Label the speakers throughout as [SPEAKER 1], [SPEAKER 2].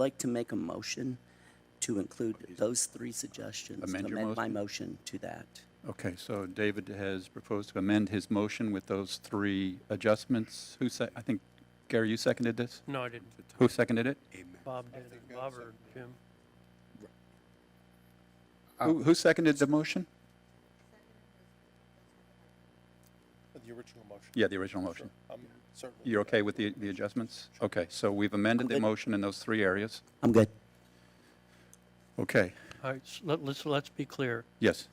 [SPEAKER 1] like to make a motion to include those three suggestions.
[SPEAKER 2] Amend your
[SPEAKER 1] my motion to that.
[SPEAKER 2] Okay, so David has proposed to amend his motion with those three adjustments. Who sec, I think, Gary, you seconded this?
[SPEAKER 3] No, I didn't.
[SPEAKER 2] Who seconded it?
[SPEAKER 3] Bob did. Bob or Jim?
[SPEAKER 2] Who, who seconded the motion?
[SPEAKER 4] The original motion.
[SPEAKER 2] Yeah, the original motion.
[SPEAKER 4] I'm certainly.
[SPEAKER 2] You're okay with the, the adjustments? Okay, so we've amended the
[SPEAKER 1] good.
[SPEAKER 2] motion in those three areas.
[SPEAKER 1] I'm good.
[SPEAKER 2] Okay,
[SPEAKER 3] All right, s- let, let's, let's be clear.
[SPEAKER 2] yes,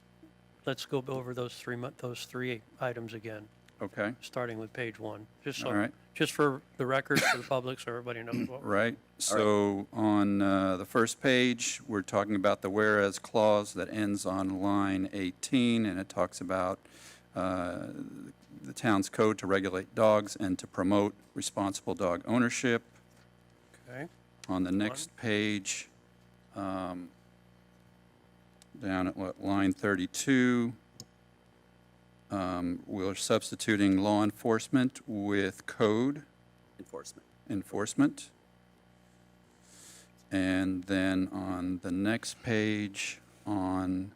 [SPEAKER 3] Let's go over those three, mo- those three items again,
[SPEAKER 2] okay,
[SPEAKER 3] starting with page one. Just
[SPEAKER 2] All
[SPEAKER 3] so,
[SPEAKER 2] right.
[SPEAKER 3] just for the record, for the public, so everybody knows what.
[SPEAKER 2] right. So on uh, the first page, we're talking about the whereas clause that ends on line 18, and it talks about uh, the town's code to regulate dogs and to promote responsible dog ownership.
[SPEAKER 3] Okay,
[SPEAKER 2] On the next page, um, down at what, line 32, um, we're substituting law enforcement with code
[SPEAKER 1] Enforcement.
[SPEAKER 2] enforcement. And then on the next page, on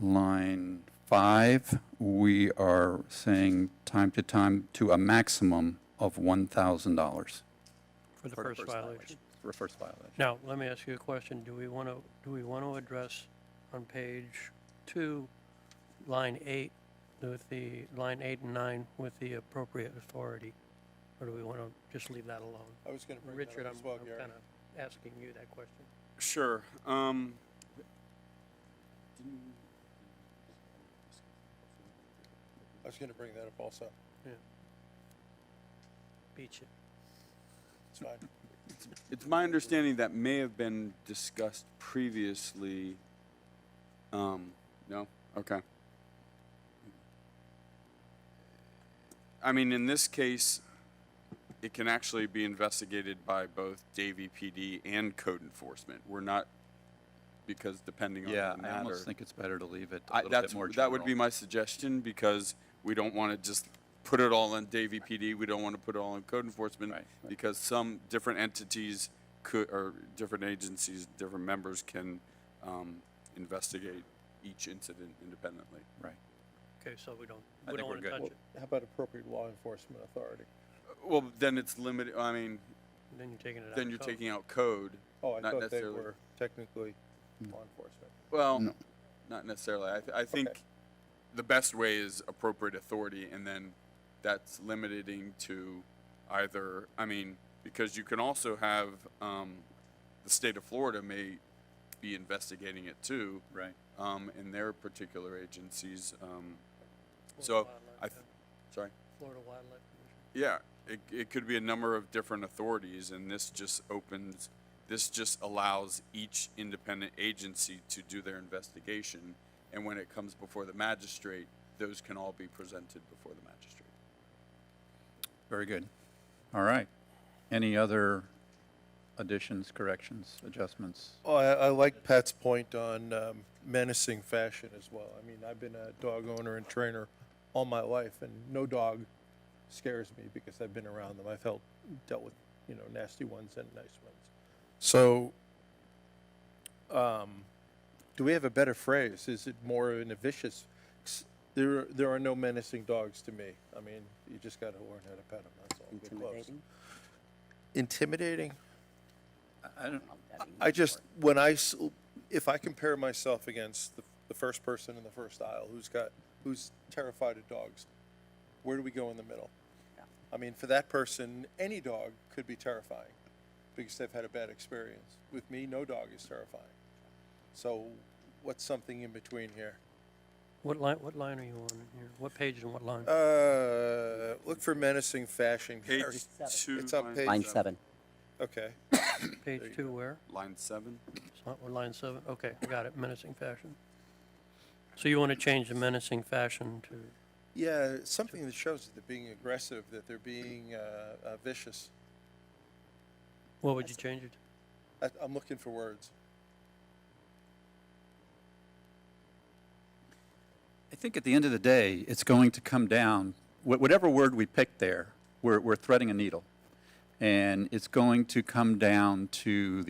[SPEAKER 2] line five, we are saying time to time to a maximum of $1,000
[SPEAKER 1] For
[SPEAKER 3] for the
[SPEAKER 1] the
[SPEAKER 3] first
[SPEAKER 1] first
[SPEAKER 3] violation.
[SPEAKER 1] violation.
[SPEAKER 2] for a first violation.
[SPEAKER 3] Now, let me ask you a question. Do we want to, do we want to address on page two, line eight, with the, line eight and nine with the appropriate authority? Or do we want to just leave that alone?
[SPEAKER 4] I was gonna bring
[SPEAKER 3] Richard,
[SPEAKER 4] that up
[SPEAKER 3] I'm
[SPEAKER 4] as well, Gary.
[SPEAKER 3] kind of asking you that question.
[SPEAKER 5] Sure. Um,
[SPEAKER 4] I was gonna bring that up also.
[SPEAKER 3] Beach it.
[SPEAKER 4] It's fine.
[SPEAKER 5] it's my understanding that may have been discussed previously. Um, no? Okay. I mean, in this case, it can actually be investigated by both Davie PD and code enforcement. We're not, because depending on
[SPEAKER 2] Yeah,
[SPEAKER 5] the
[SPEAKER 2] I
[SPEAKER 5] matter.
[SPEAKER 2] almost think it's better to leave it a
[SPEAKER 5] I,
[SPEAKER 2] little bit
[SPEAKER 5] that's,
[SPEAKER 2] more
[SPEAKER 5] that would be
[SPEAKER 2] general.
[SPEAKER 5] my suggestion because we don't want to just put it all on Davy PD. We don't want to put it all on code enforcement
[SPEAKER 2] Right, right.
[SPEAKER 5] because some different entities could, or different agencies, different members can um, investigate each incident independently.
[SPEAKER 2] Right.
[SPEAKER 3] Okay, so we don't,
[SPEAKER 2] I
[SPEAKER 3] we
[SPEAKER 2] think
[SPEAKER 3] don't
[SPEAKER 2] we're
[SPEAKER 3] want to
[SPEAKER 2] good.
[SPEAKER 3] touch
[SPEAKER 4] Well,
[SPEAKER 3] it.
[SPEAKER 4] How about appropriate law enforcement authority?
[SPEAKER 5] Well, then it's limited. I mean,
[SPEAKER 3] Then you're taking it out.
[SPEAKER 5] then you're
[SPEAKER 3] So,
[SPEAKER 5] taking out code.
[SPEAKER 4] Oh, I thought
[SPEAKER 5] Not
[SPEAKER 4] they
[SPEAKER 5] necessarily. Hmm.
[SPEAKER 4] were technically law enforcement.
[SPEAKER 5] Well,
[SPEAKER 2] No.
[SPEAKER 5] not necessarily. I, th- I think the best way is appropriate authority, and then that's limiting to either. I mean, because you can also have um, the state of Florida may be investigating it too
[SPEAKER 2] Right.
[SPEAKER 5] um, in their particular agencies. Um,
[SPEAKER 3] Florida
[SPEAKER 5] so
[SPEAKER 3] Wildlife
[SPEAKER 5] I, th-
[SPEAKER 3] Commission-
[SPEAKER 5] sorry.
[SPEAKER 3] Florida Wildlife Commission.
[SPEAKER 5] Yeah, it, it could be a number of different authorities, and this just opens, this just allows each independent agency to do their investigation. And when it comes before the magistrate, those can all be presented before the magistrate.
[SPEAKER 2] Very good. All right. Any other additions, corrections, adjustments?
[SPEAKER 4] Oh, I, I like Pat's point on um, menacing fashion as well. I mean, I've been a dog owner and trainer all my life, and no dog scares me because I've been around them. I've helped dealt with you know nasty ones and nice ones. So, um, do we have a better phrase? Is it more in a vicious? There, there are no menacing dogs to me. I mean, you just got to learn how to pet them. That's all. Get close.
[SPEAKER 1] Intimidating.
[SPEAKER 4] Intimidating.
[SPEAKER 2] I don't,
[SPEAKER 4] I just, when I, s- if I compare myself against the, the first person in the first aisle who's got, who's terrified of dogs, where do we go in the middle? I mean, for that person, any dog could be terrifying because they've had a bad experience. With me, no dog is terrifying. So what's something in between here?
[SPEAKER 3] What line, what line are you on here? What page and what line?
[SPEAKER 4] Uh, look for menacing fashion,
[SPEAKER 5] Page
[SPEAKER 4] Gary.
[SPEAKER 5] two.
[SPEAKER 4] It's on page-
[SPEAKER 1] Line seven.
[SPEAKER 4] Okay.
[SPEAKER 3] Page two where?
[SPEAKER 5] Line seven.
[SPEAKER 3] It's not- we're Line seven, okay, I got it, menacing fashion. So you want to change the menacing fashion to,
[SPEAKER 4] Yeah, something that shows that they're being aggressive, that they're being, uh, uh, vicious.
[SPEAKER 3] what would you change it? to?
[SPEAKER 4] I, I'm looking for words.
[SPEAKER 2] I think at the end of the day, it's going to come down, wha- whatever word we pick there, we're, we're threading a needle. And it's going to come down to the